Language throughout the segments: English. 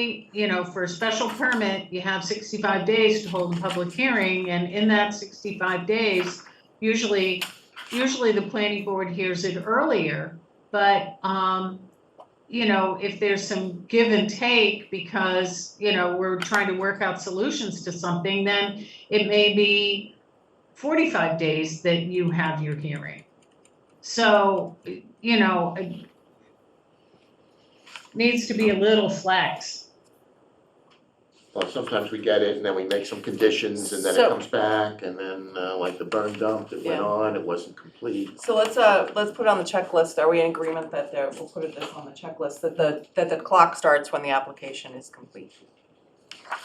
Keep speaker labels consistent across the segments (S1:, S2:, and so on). S1: you know, for a special permit, you have 65 days to hold a public hearing, and in that 65 days, usually, usually the planning board hears it earlier, but, um, you know, if there's some give and take because, you know, we're trying to work out solutions to something, then it may be 45 days that you have your hearing. So, you know, it needs to be a little flex.
S2: Well, sometimes we get it and then we make some conditions and then it
S3: So-
S2: comes back and then uh, like the burn dump, it went
S3: Yeah.
S2: on, it wasn't complete.
S3: So let's, uh, let's put on the checklist, are we in agreement that there, we'll put it this on the checklist, that the, that the clock starts when the application is complete?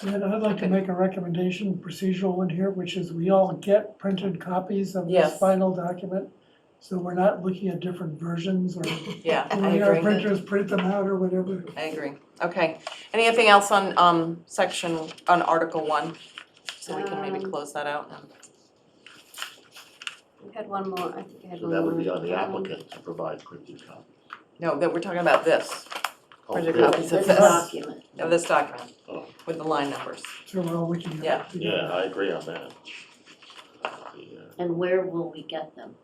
S4: And I'd like to
S3: Okay.
S4: make a recommendation, procedural one here, which is we all get printed copies of
S3: Yes.
S4: this final document. So we're not looking at different versions or
S3: Yeah, I
S4: when our
S3: agree,
S4: printers print them out or whatever.
S3: I agree, okay, anything else on, um, section, on Article one? So we can maybe
S5: Um,
S3: close that out and,
S5: I had one more, I think I had
S2: So
S5: one more.
S2: that would be on the
S5: Um,
S2: applicant to provide printed copy.
S3: no, that we're talking about this,
S2: Oh,
S3: Printed
S2: really?
S3: copies of
S5: this
S3: this.
S5: document.
S3: of this document,
S2: Oh.
S3: with the line numbers.
S4: So we're all looking
S3: Yeah.
S4: at it
S2: Yeah,
S4: together.
S2: I agree on that. The, uh,
S5: And where will we get them?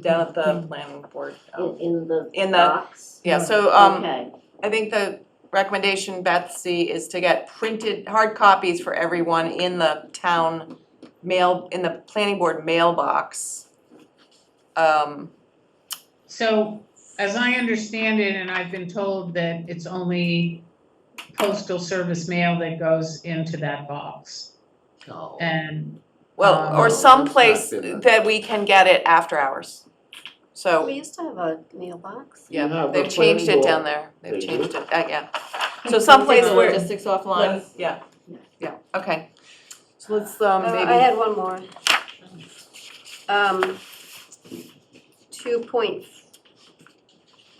S3: Down at the planning board, um,
S5: In, in the
S3: In the-
S5: box?
S3: yeah, so, um,
S5: Okay,
S3: I think the recommendation, Betsy, is to get printed, hard copies for everyone in the town mail, in the planning board mailbox. Um,
S1: So as I understand it, and I've been told that it's only postal service mail that goes into that box.
S2: oh.
S1: And,
S3: well, or
S2: Oh,
S3: someplace
S2: that's not good.
S3: that we can get it after hours. So,
S5: we used to have a mailbox.
S2: You
S3: yeah,
S2: have
S3: they've
S2: the
S3: changed
S2: planning
S3: it down
S2: board.
S3: there, they've
S2: They
S3: changed
S2: do?
S3: it, uh, yeah. So someplace
S5: Take
S3: where.
S5: logistics offline.
S3: Yes, yeah,
S5: Yeah.
S3: yeah, okay. So let's, um,
S5: Uh,
S3: maybe.
S5: I had one more. Um, two point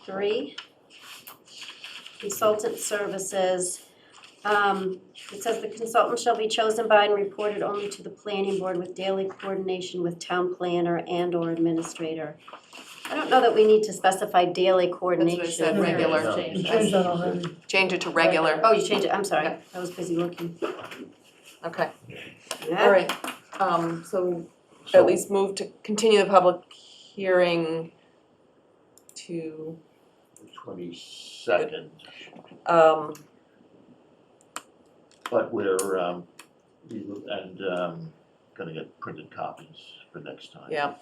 S5: three. Consultant services. Um, it says the consultant shall be chosen by and reported only to the planning board with daily coordination with town planner and or administrator. I don't know that we need to specify daily coordination.
S3: said,
S4: regular.
S2: Yeah.
S4: We changed that already.
S3: change it to regular,
S5: Oh, you changed it, I'm sorry,
S3: Yeah.
S5: I was busy looking.
S3: okay,
S5: Yeah.
S3: all right. Um, so at
S2: So-
S3: least move to continue the public hearing to,
S2: Twenty-second,
S3: um,
S2: but we're, um, you- and, um, gonna get printed copies for next time.
S3: Yeah.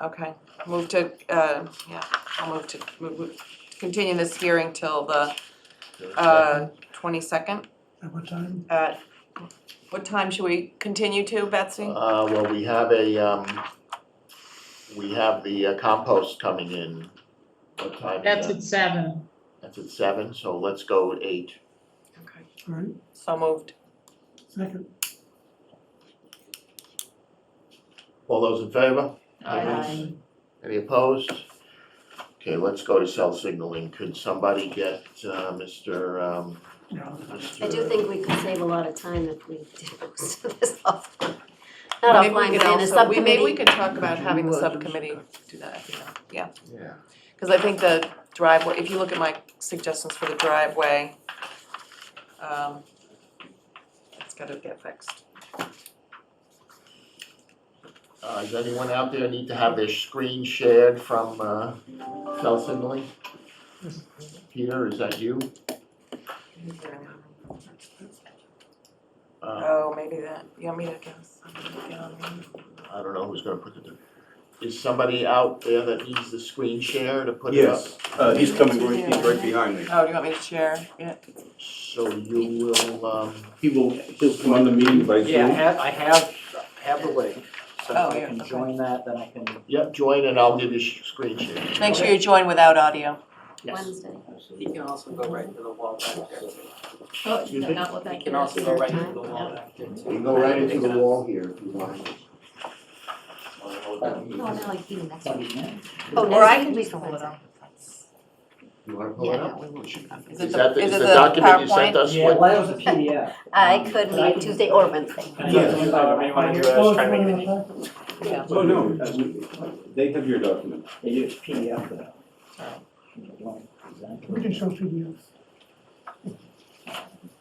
S3: okay, move to, uh, yeah, I'll move to, move, move- continue this hearing till the, uh, twenty-second
S4: At what time?
S3: at, what time should we continue to, Betsy?
S2: Uh, well, we have a, um, we have the uh, compost coming in. What time is
S1: that's
S2: that?
S1: at seven.
S2: That's at seven, so let's go at eight.
S3: Okay.
S4: All right,
S3: So moved,
S4: second.
S2: All those in favor?
S5: Aye.
S2: Any opposed? Okay, let's go to cell signaling. Could somebody get, uh, Mr., um,
S4: Yeah.
S2: Mr.?
S5: I do think we could save a lot of time if we did most of this offline. Not
S3: maybe we
S5: offline,
S3: could
S5: but in a
S3: also, we, maybe we
S5: subcommittee.
S3: could talk about having the
S2: Would you, uh,
S3: subcommittee do that, if you know.
S2: Yeah.
S3: Because I think the driveway, if you look at my suggestions for the driveway, um, it's gotta get fixed.
S2: Uh, does anyone out there need to have their screen shared from, uh, cell signaling? Peter, is that you? Uh,
S3: Oh, maybe that, you want me to guess? I'm gonna get on there.
S2: I don't know who's gonna put it in. Is somebody out there that needs the screen share to put it up?
S6: Yes, uh, he's coming right, he's right behind me.
S3: Oh, do you want me to share? Yeah,
S2: So you will, um,
S6: He will, he'll come on the meeting by
S7: Yeah, I
S6: Zoom.
S7: have, I have, have the link, so
S3: Oh,
S7: if I
S3: yeah,
S7: can
S3: okay.
S7: join that, then I can,
S2: yep, join and I'll give you sh- screen share.
S3: make sure you join without audio.
S7: yes.
S5: Wednesday.
S7: He can also go right to the wall back there.
S5: Oh,
S2: Excuse me?
S5: not what
S7: He can also go right to the wall back there too.
S2: You can go right into the wall here if you want.
S5: Oh,
S3: Or I
S5: next
S3: can
S5: week.
S3: just hold it up.
S2: You wanna pull it up?
S3: Is it
S2: Is
S3: the,
S2: that, the-
S3: is
S2: is
S3: it
S2: the
S3: the
S2: document you sent
S3: PowerPoint?
S2: us?
S7: Yeah,
S2: what-
S7: that was a PDF.
S5: I could meet Tuesday or Wednesday.
S7: Yes. However you wanna do it, I was trying to make it easy.
S3: Yeah.
S6: Oh, no, they have your document.
S7: Oh.
S8: They do PDF though.
S4: We can show PDFs.